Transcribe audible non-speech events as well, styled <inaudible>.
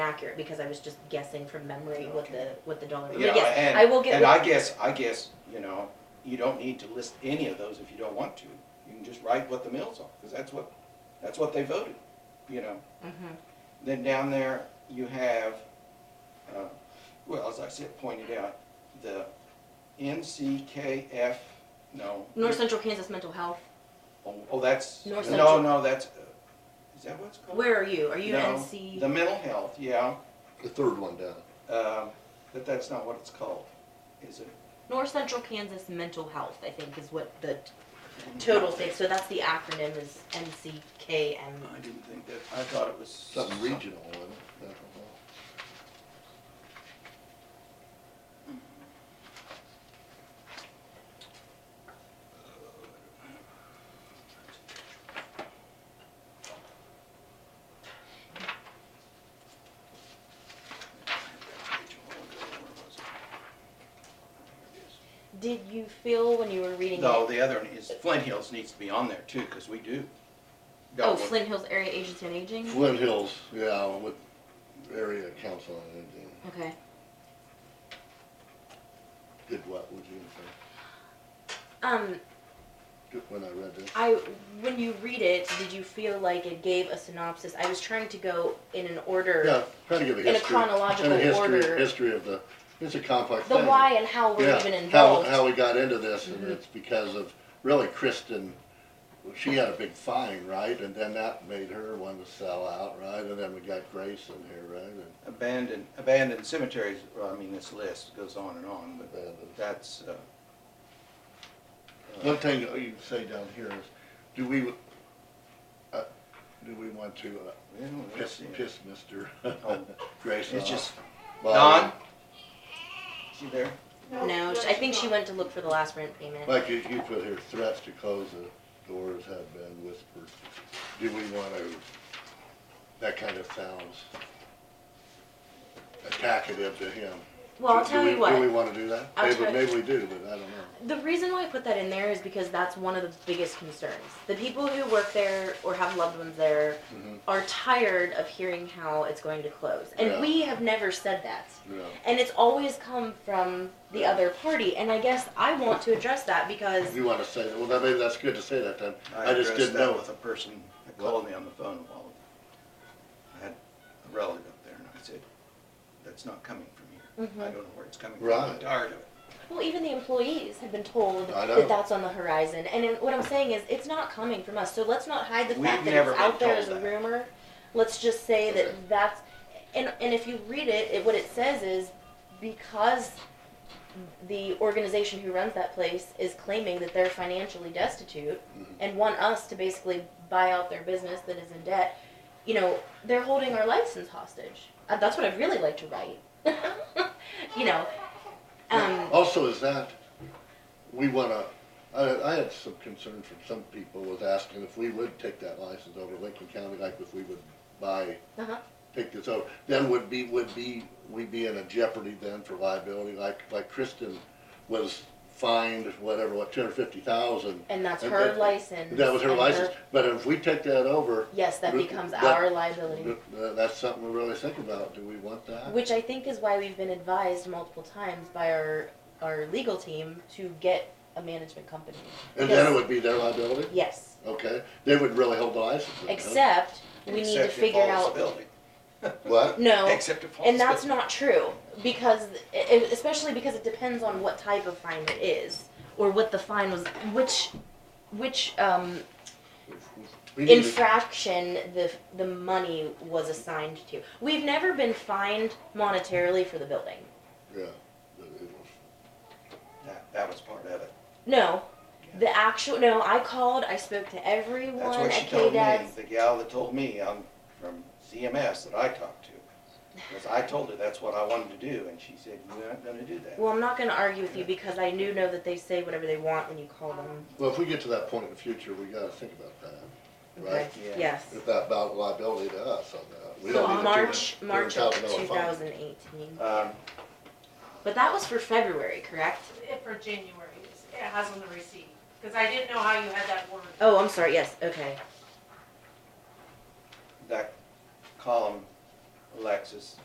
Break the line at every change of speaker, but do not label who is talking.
accurate because I was just guessing from memory what the, what the dollar. but
Yeah,
yes,
and-
I will get.
And
with-
I guess, I guess, you know, you don't need to list any of those if you don't want to. You can just write what the mills are, because that's what, that's what they voted, you know.
Mhm.
Then down there, you have, uh, well, as I said, pointed out, the NCKF, no.
North Central Kansas Mental Health,
Oh, oh, that's,
North
no,
Central.
no, that's, uh, is that what it's called?
where are you? Are you
No,
NC?
The mental health, yeah,
The third one down.
um, but that's not what it's called, is it?
North Central Kansas Mental Health, I think, is what the t- total thing, so that's the acronym is NCKM.
I didn't think that, I thought it was.
Something regional, wasn't it? Mental health.
Did you feel when you were reading it?
No, the other one is Flint Hills needs to be on there too, because we do.
Oh,
got one.
Flint Hills Area Agency on Aging?
Flint Hills, yeah, with area council on Aging.
Okay.
Did what, would you say?
Um,
Good, When I read this,
I when you read it, did you feel like it gave a synopsis? I was trying to go in an order,
yeah, try to give a
in a
history.
chronological
and a history-
order.
History of the, it's a complex
the
thing.
why and how we're
Yeah,
even
How,
involved.
how we got into this, and
Mhm.
it's because of, really Kristen, she had a big fine, right? And then that made her want to sell out, right? And then we got Grace in here, right? And
Abandoned, abandoned cemeteries, well, I mean, this list goes on and on, but
abandoned.
that's, uh. uh,
One thing that you say down here is, do we, uh, do we want to uh,
well, let's
piss,
see.
piss Mr. <laughs>
Oh,
Grace
It's
off?
just,
Well,
Don? She there?
no, sh- I think she went to look for the last rent payment.
Like you, you put here, threats to close the doors have been whispered. Do we want to, that kind of sounds attackative to him.
well, I'll
Do- do
tell
we-
you
Do we
what.
want to do that?
I'll
Maybe,
tell-
maybe we do, but I don't know.
The reason why I put that in there is because that's one of the biggest concerns. The people who work there or have loved ones there
Mhm.
are tired of hearing how it's going to close, and
Yeah.
we have never said that.
Yeah.
And it's always come from the other party, and I guess I want to address that because
You want to say that, well, that- maybe that's good to say that then. I just
addressed
didn't
that
know.
With a person that called me on the phone a while ago. I had a relative up there and I said, that's not coming from here. I
Mhm.
don't know where it's coming from. I'm
Right.
tired of it.
Well, even the employees have been told
I know.
that that's on the horizon, and then what I'm saying is it's not coming from us. So let's not hide the
We've
fact that
never
it's out
been
there as
told
a
that.
rumor. Let's just say
Okay.
that that's, and and if you read it, it, what it says is because the organization who runs that place is claiming that they're financially destitute
Mhm.
and want us to basically buy out their business that is in debt. You know, they're holding our license hostage. Uh, that's what I'd really like to write. <laughs> you know. Um,
Also, is that, we wanna, I, I had some concern from some people was asking if we would take that license over Lincoln County, like if we would buy,
Uh-huh.
take this over, then would be, would be, we'd be in a jeopardy then for liability, like, like Kristen was fined, whatever, what, two hundred fifty thousand?
And that's
And
her
that-
license.
That was her
and
license, but if we take that over,
yes, that
Th-
becomes
that-
our liability.
th- that's something we really think about, do we want that?
Which I think is why we've been advised multiple times by our our legal team to get a management company.
And then
Yes.
it would be their liability,
Yes,
okay, they would really hold the license. then, huh?
except we need to
Except if
figure
all is
out.
building. <laughs>
What?
No,
Except if all
and
is
that's
building.
not true because, it, especially because it depends on what type of fine it is or what the fine was, which, which um,
We need to-
infraction the the money was assigned to. We've never been fined monetarily for the building.
Yeah. but it was-
That, that was part of it.
No. The actual no, I called, I spoke to everyone
That's what
at
she
K
told me,
Dad's.
the gal that told me, um, from CMS that I talked to. Because I told her that's what I wanted to do and she said, you're not gonna do that.
Well, I'm not gonna argue with you because I do know that they say whatever they want when you call them.
Well, if we get to that point in the future, we gotta think about that,
Okay.
right?
Yeah.
Yes.
If that about liability to us on that. We
So
don't need a
March
two-
March of
$200,000
two
fine.
thousand eighteen.
Um,
But that was for February, correct?
If for January, it has on the receipt, because I didn't know how you had that word.
Oh, I'm sorry, yes, okay.
that column, Alexis,